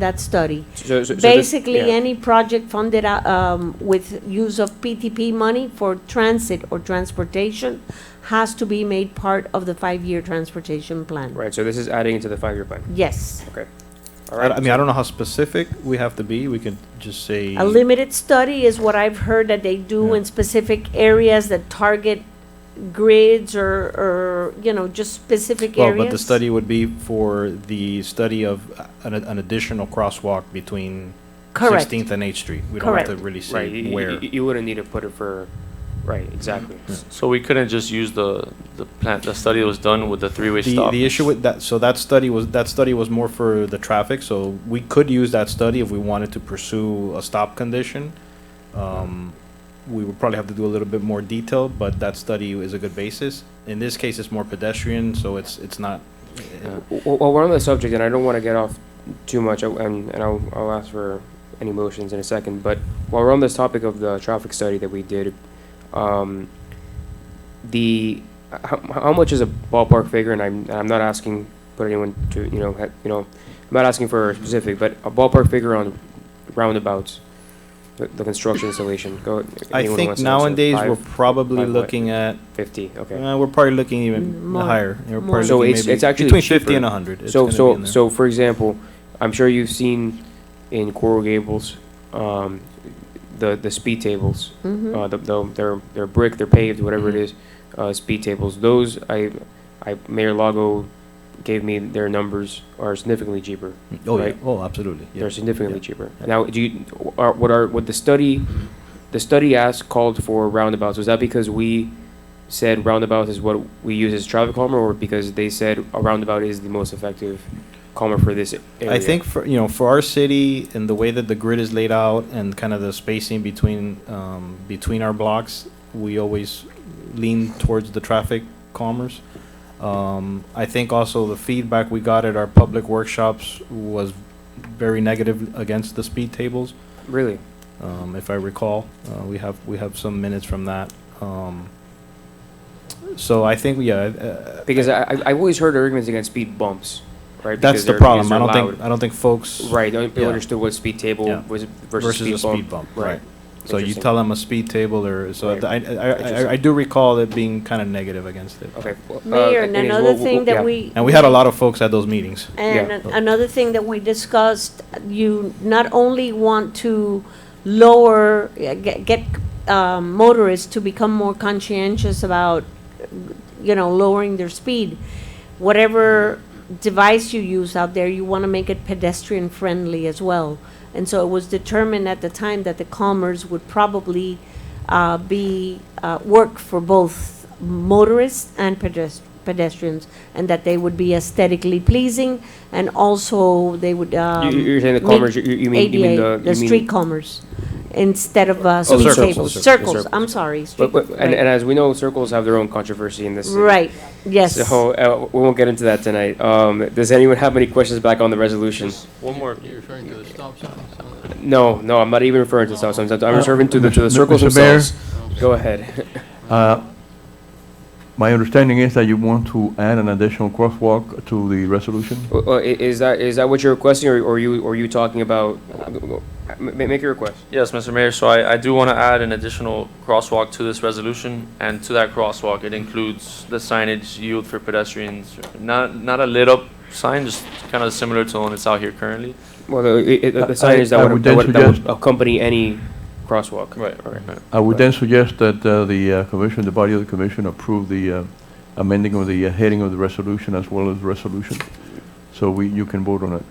that study. So- so- so this- Basically, yeah. any project funded uh, um, with use of PTP money for transit or transportation has to be made part of the five-year transportation plan. Right, so this is adding into the five-year plan. Yes, Okay. All I, right. I mean, I don't know how specific we have to be. We could just say. a limited study is what I've heard that they do Yeah. in specific areas that target grids or, or, you know, just specific Well, areas. but the study would be for the study of an, an additional crosswalk between Correct, Sixteenth and Eighth Street. We don't have to Correct. really Right, you- say you, where. you- you wouldn't need to put it for, right, exactly. So we couldn't just use the, the plan, the study that was done with the three-way The, stop? the issue with that, so that study was, that study was more for the traffic, so we could use that study if we wanted to pursue a stop condition. Um, we would probably have to do a little bit more detail, but that study is a good basis. In this case, it's more pedestrian, so it's, it's not, Well, well, we're on the subject, and I don't want to get off too much, I- and, and I'll, I'll ask for any motions in a second, but while we're on this topic of the traffic study that we did, um, the, how, how much is a ballpark figure, and I'm, and I'm not asking for anyone to, you know, ha- you know, I'm not asking for a specific, but a ballpark figure on roundabouts, the, the construction installation, go. I anyone wants think to answer? nowadays, Five, we're probably five what? looking at, Fifty, okay. uh, we're probably looking Mm, even more- higher. We're more. probably So looking it's- maybe it's actually Between fifty cheaper. and hundred. It's So, gonna be in so, there. so for example, I'm sure you've seen in Coral Gables, um, the, the speed tables, Mhm. uh, the, the, they're, they're brick, they're paved, whatever it Mhm. is, uh, speed tables, those, I, I, Mayor Lago gave me their numbers are significantly cheaper. Oh, yeah, right? oh, absolutely, yeah. They're significantly cheaper. Yeah. Now, do you, are, what are, what the study, the study asked called for roundabouts, was that because we said roundabouts is what we use as traffic calmer, or because they said a roundabout is the most effective calmer for this area? I think for, you know, for our city and the way that the grid is laid out and kind of the spacing between, um, between our blocks, we always lean towards the traffic commerce. Um, I think also the feedback we got at our public workshops was very negative against the speed tables, Really? um, if I recall. Uh, we have, we have some minutes from that. Um, so I think, yeah, uh, Because I, I- I've always heard arguments against speed bumps, right? Because that's the they're- because problem. I they're don't think, loud. I don't think folks Right, no people Yeah. understood what speed Yeah. table was versus versus a speed bump. speed bump, Right. right. So you Interesting. tell them a speed table or, so Right. I, I, Interesting. I, I do recall it being kind of negative against it. Okay. well, uh, Mayor, and anyways, another we'll- we'll- thing that yeah. we. And we had a lot of folks at those meetings. And Yeah. an- another thing that we discussed, you not only want to lower, uh, get, get um, motorists to become more conscientious about, you know, lowering their speed. Whatever device you use out there, you want to make it pedestrian friendly as well. And so it was determined at the time that the Commerce would probably uh, be, uh, work for both motorists and pedest- pedestrians, and that they would be aesthetically pleasing, and also they would. um, You- You're saying the make commerce, you you mean, you mean ADA, the. the you mean- Oh, street commerce, instead of uh, circles, speed circles, tables, circles, circles, circles. I'm sorry. street- But, but, and, and as we know, circles have their own controversy in this. city. Right, yes. So, uh, we won't get into that tonight. Um, does anyone have any questions back on the resolution? One more. You're referring to the stop signs? No, no, I'm not even referring to stop signs. I'm Uh, referring to the, to the Mr. circles Mr. Mayor? themselves. Go ahead. Uh, My understanding is that you want to add an additional crosswalk to the resolution? Uh, uh, i- Is that, is that what you're requesting or or you, or you talking about? Ma- ma- Make your request. Yes, Mr. Mayor, so I, I do want to add an additional crosswalk to this resolution, and to that crosswalk, it includes the signage yield for pedestrians, not, not a lit up sign, just kind of similar to the one that's out here currently. Well, the, i- i- the I- sign is I that would, would that then would- that would suggest- accompany any crosswalk. All Right. I would then suggest that uh, the uh, commission, the body of the commission, approve the uh, amending of the uh, heading of the resolution as well as the resolution, so we, you can vote on it.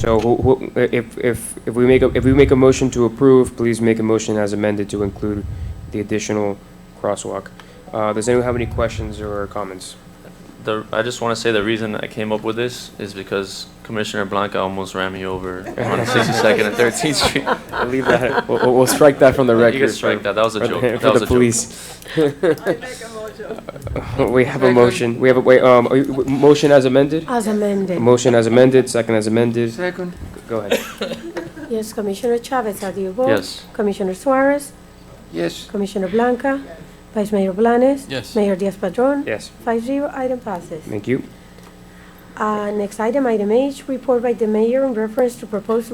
So who- who- if, if, if we make, a if we make a motion to approve, please make a motion as amended to include the additional crosswalk. Uh, Does anyone have any questions or comments? The, I just want to say the reason I came up with this is because Commissioner Blanca almost ran me over on 62nd and 13th Street. I'll leave that, we'll, we'll- we'll strike that from the record. You can strike that, that was a for- joke. for the- That For was the a joke. police. We have a motion, we have a, wait, um, are you- motion as amended? As amended. Motion as amended, second as amended, Second? go ahead. Yes, Commissioner Chavez, how do you vote? Yes. Commissioner Suarez, Yes. Commissioner Blanca, Vice Mayor Blanes, Yes. Mayor Diaz-Padrón. Yes, Five zero, item passes. thank you. Uh, Next item, item H, report by the mayor in reference to proposed